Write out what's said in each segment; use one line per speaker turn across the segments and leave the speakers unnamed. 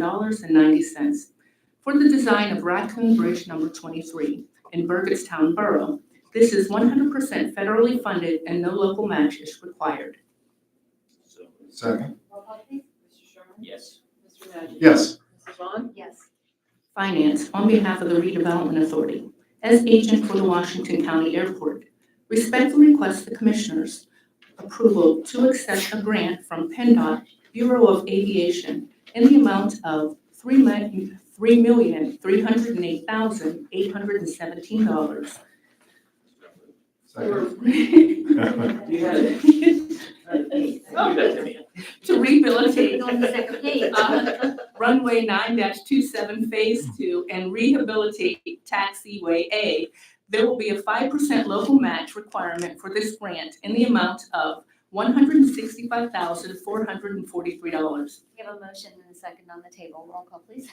$487.90 for the design of Raccoon Bridge Number 23 in Burgettstown Borough. This is 100% federally funded and no local match is required.
So moved.
Second.
Roll call please.
Mr. Sherman?
Yes.
Mr. Magic?
Yes.
Mrs. Vaughn?
Yes.
Finance, on behalf of the Redevelopment Authority, as agent for the Washington County Airport, respectfully request the Commissioners' approval to accept a grant from PennDOT Bureau of Aviation in the amount of three million three million three hundred and eight thousand eight hundred and seventeen dollars
So moved.
Second.
Oh.
You had it. You had it.
to rehabilitate
On the second page.
Uh, runway nine 27 phase two and rehabilitate taxiway A, there will be a five percent local match requirement for this grant in the amount of one hundred and sixty-five thousand, four hundred and forty-three dollars.
We have a motion and a second on the table. Roll call please.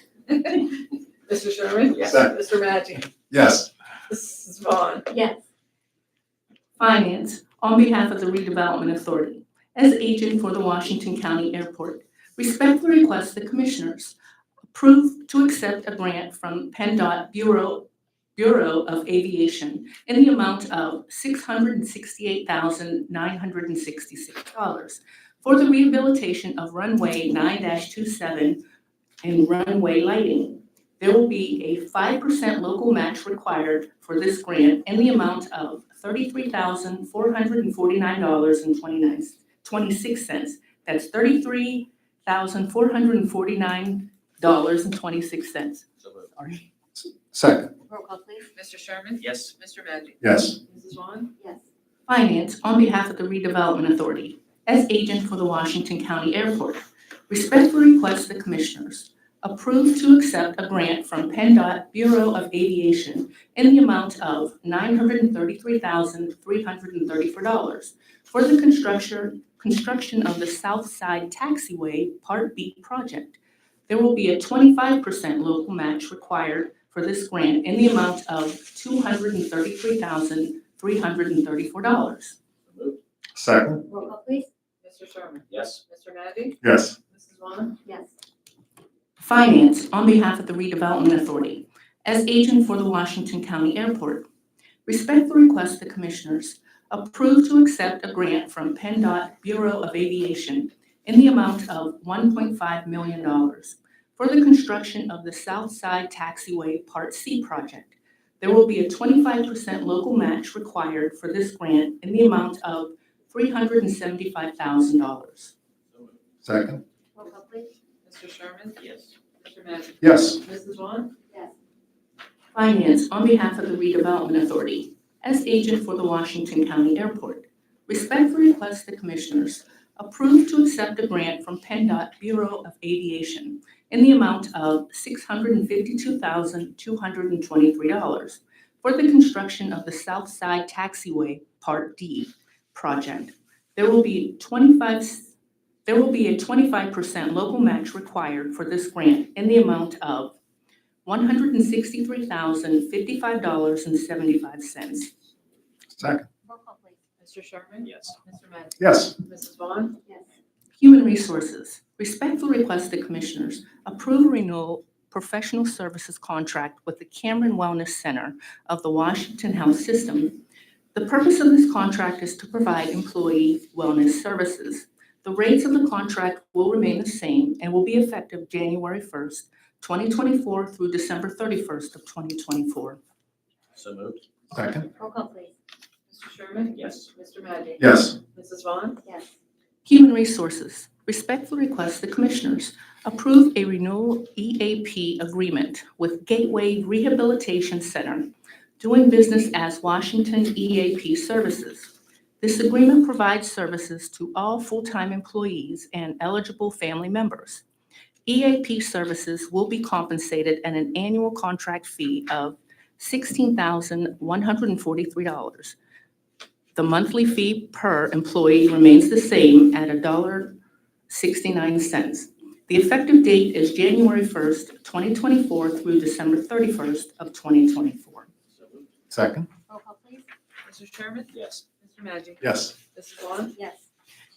Mr. Sherman?
Yes.
Mr. Magic?
Yes.
Mrs. Vaughn?
Yes.
Finance, on behalf of the Redevelopment Authority, as agent for the Washington County Airport, respectfully request the Commissioners approve to accept a grant from PennDOT Bureau, Bureau of Aviation in the amount of $668,966 for the rehabilitation of runway 9-27 and runway lighting. There will be a five percent local match required for this grant in the amount of thirty-three thousand, four hundred and forty-nine dollars and twenty-nine, twenty-six cents. That's thirty-three thousand, four hundred and forty-nine dollars and twenty-six cents.
So moved.
Sorry.
Second.
Roll call please.
Mr. Sherman?
Yes.
Mr. Magic?
Yes.
Mrs. Vaughn?
Yes.
Finance, on behalf of the Redevelopment Authority, as agent for the Washington County Airport, respectfully request the Commissioners approve to accept a grant from PennDOT Bureau of Aviation in the amount of $933,334 for the construction, construction of the South Side Taxiway Part B project. There will be a 25% local match required for this grant in the amount of $233,000. $334.
So moved.
Second.
Roll call please.
Mr. Sherman?
Yes.
Mr. Magic?
Yes.
Mrs. Vaughn?
Yes.
Finance, on behalf of the Redevelopment Authority, as agent for the Washington County Airport, respectfully request the Commissioners approve to accept a grant from PennDOT Bureau of Aviation in the amount of $1.5 million for the construction of the South Side Taxiway Part C project. There will be a 25% local match required for this grant in the amount of $375,000.
So moved.
Second.
Roll call please.
Mr. Sherman?
Yes.
Mr. Magic?
Yes.
Mrs. Vaughn?
Yes.
Finance, on behalf of the Redevelopment Authority, as agent for the Washington County Airport, respectfully request the Commissioners approve to accept a grant from PennDOT Bureau of Aviation in the amount of $652,223 for the construction of the South Side Taxiway Part D project. There will be 25, there will be a 25% local match required for this grant in the amount of one hundred and sixty-three thousand, fifty-five dollars and seventy-five cents.
Second.
Roll call please.
Mr. Sherman?
Yes.
Mr. Magic?
Yes.
Mrs. Vaughn?
Yes.
Human Resources, respectfully request the Commissioners approve a renewal professional services contract with the Cameron Wellness Center of the Washington Health System. The purpose of this contract is to provide employee wellness services. The rates of the contract will remain the same and will be effective January first, twenty twenty-four through December thirty-first of twenty twenty-four.
So moved.
Second.
Roll call please.
Mr. Sherman?
Yes.
Mr. Magic?
Yes.
Mrs. Vaughn?
Yes.
Human Resources respectfully request the Commissioners approve a renewal EAP agreement with Gateway Rehabilitation Center, doing business as Washington EAP Services. This agreement provides services to all full-time employees and eligible family members. EAP services will be compensated at an annual contract fee of $16,143. The monthly fee per employee remains the same at $1.69. The effective date is January 1st, 2024 through December 31st of 2024.
So moved.
Second.
Roll call please.
Mr. Sherman?
Yes.
Mr. Magic?
Yes.
Mrs. Vaughn?
Yes.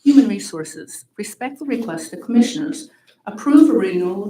Human Resources respectfully request the Commissioners Approve a renewal